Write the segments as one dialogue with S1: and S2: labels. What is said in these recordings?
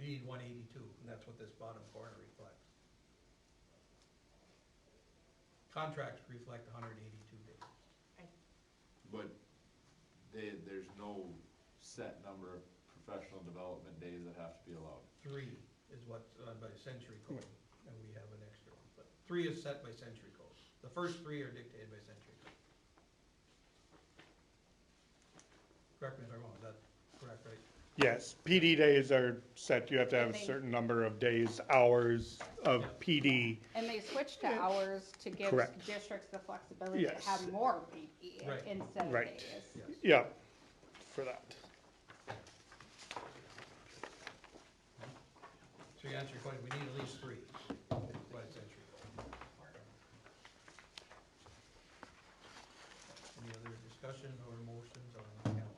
S1: need one eighty-two, and that's what this bottom corner reflects. Contracts reflect hundred eighty-two days.
S2: But they, there's no set number of professional development days that have to be allowed.
S1: Three is what's on by century code, and we have an extra one, but three is set by century code. The first three are dictated by century code. Correct me if I'm wrong, is that correct, right?
S3: Yes, PD days are set, you have to have a
S4: They-
S3: certain number of days, hours of PD.
S4: And they switched to hours to give
S3: Correct.
S4: districts the flexibility to
S3: Yes.
S4: have more PD
S1: Right.
S4: instead of
S3: Right.
S4: days.
S1: Yes.
S3: Yeah, for that.
S1: So you answer your question, we need at least three by century code. Any other discussion or motions on the calendar?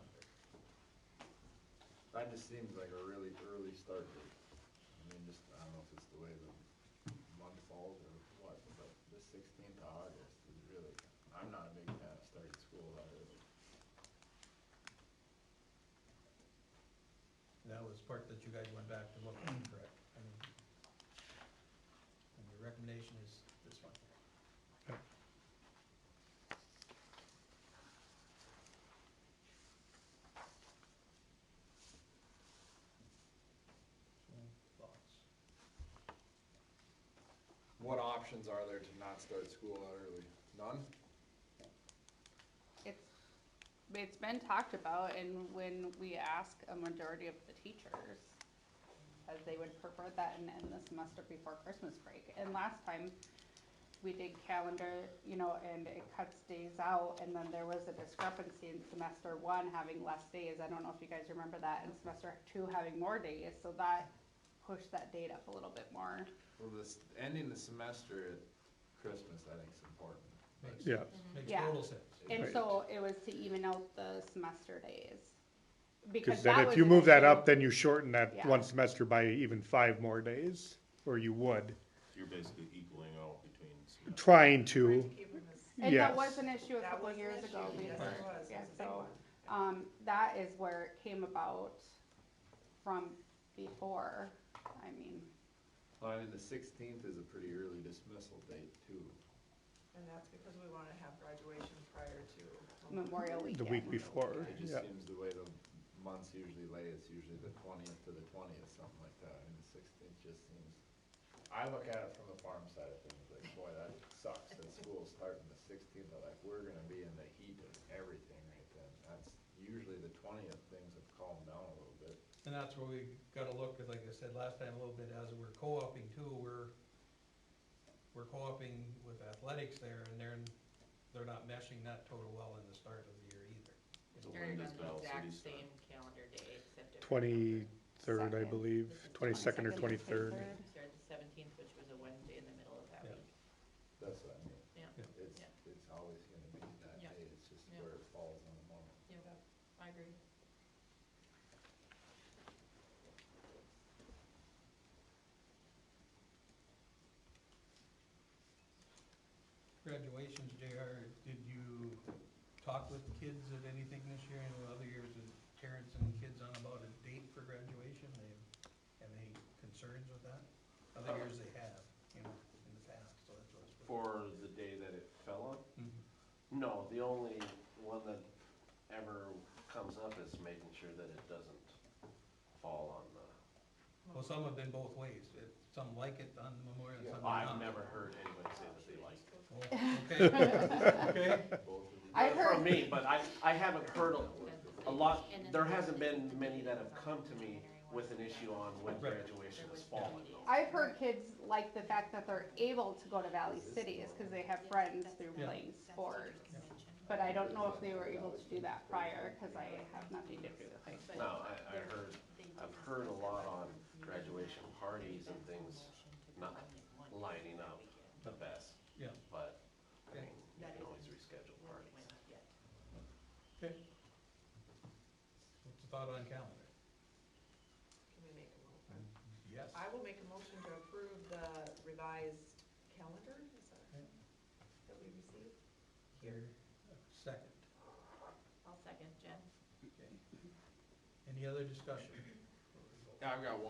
S2: That just seems like a really early start date. I mean, just, I don't know if it's the way the month falls or what, but the sixteenth of August is really, I'm not a big fan of starting school that early.
S1: That was part that you guys went back to look at, correct? I mean, And your recommendation is this one. So, Thoughts?
S2: What options are there to not start school that early? None?
S4: It's, it's been talked about and when we ask a majority of the teachers, as they would prefer that and end the semester before Christmas break. And last time, we did calendar, you know, and it cuts days out and then there was a discrepancy in semester one having less days. I don't know if you guys remember that and semester two having more days, so that pushed that date up a little bit more.
S2: Well, this, ending the semester at Christmas, I think is important.
S1: Makes
S3: Yeah.
S1: sense, makes
S4: Yeah.
S1: total sense.
S4: And
S3: Right.
S4: so it was to even out the semester days.
S3: Because
S4: that
S3: then if
S4: was
S3: you
S4: an
S3: move that
S4: issue.
S3: up, then you shorten that
S4: Yeah.
S3: one semester by even five more days, or you would,
S5: You're basically equaling out between.
S3: trying to.
S6: Trying to keep them as-
S4: And that
S3: Yes.
S4: was an issue a
S6: That
S4: couple
S6: was
S4: of
S6: an
S4: years
S6: issue.
S4: ago.
S6: Yes,
S4: because-
S6: it was.
S4: Yeah,
S6: It was a big
S4: so,
S6: one.
S4: um, that is where it came about from before, I mean,
S2: Well, I mean, the sixteenth is a pretty early dismissal date too.
S6: And that's because we want to have graduation prior to.
S4: Memorial
S3: The
S4: Weekend.
S3: week before,
S2: It just
S3: yeah.
S2: seems the way the months usually lay, it's usually the twentieth to the twentieth, something like that, and the sixteenth just seems. I look at it from the farm side of things, like, boy, that sucks, that school's starting the sixteenth, but like, we're gonna be in the heat of everything right then. That's usually the twentieth, things have calmed down a little bit.
S1: And that's where we gotta look, at, like I said last time, a little bit, as we're co-oping too, we're, we're co-oping with athletics there, and they're, they're not meshing that total well in the start of the year either.
S5: So when
S7: Started
S5: does
S7: on the
S5: Val City
S7: exact
S5: start?
S7: same calendar day, except. it-
S3: Twenty-third, I
S4: Second.
S7: This
S3: believe,
S7: is
S3: twenty-second or
S4: 22nd,
S3: twenty-third.
S4: 23rd.
S7: Started the seventeenth, which was a Wednesday in the middle of that
S1: Yeah.
S7: week.
S2: That's what I mean.
S7: Yeah,
S1: Yeah.
S2: It's,
S7: Yeah.
S2: it's always gonna be that
S7: Yeah.
S2: day, it's just
S7: Yeah.
S2: where it falls on the moment.
S7: yeah, I agree.
S1: Graduations, JR, did you talk with the kids at anything this year? I know other years, the parents and kids on about a date for graduation, they have any concerns with that? Other years they have, you know, in the past, so that's what it's.
S8: for the day that it fell on?
S1: Mhm.
S8: No, the only one that ever comes up is making sure that it doesn't fall on the,
S1: Well, some have been both ways, It- some like it on the memorial, some not.
S8: I've never heard anybody say that they like it.
S1: Oh, Okay, okay,
S4: I
S8: From
S4: heard,
S8: me, but I, I haven't heard a, a lot,
S7: And then
S8: there
S7: the
S8: hasn't been
S7: second
S8: many that have
S7: day
S8: come to me
S7: was
S8: with an issue on when
S1: Right.
S8: graduation
S7: There
S8: is
S7: was
S8: falling.
S7: no-
S4: I've heard kids like the fact that they're able to go to Valley City is because they have friends through
S1: Yeah.
S4: playing sports.
S7: Convention.
S4: But I don't know if they were able to do that prior, because I have nothing to do with it.
S8: No, I, I heard, I've heard a lot on graduation parties and things not lining up the best.
S1: yeah,
S8: But, I
S1: Okay.
S8: mean, you can always reschedule parties.
S1: okay. What's the thought on calendar?
S6: Can we make a motion?
S1: Yes.
S6: I will make a motion to approve the revised calendar, is that,
S1: Okay.
S6: that we received?
S1: Here, second,
S7: I'll second, Jen.
S1: okay. Any other discussion?
S2: Yeah, I've got one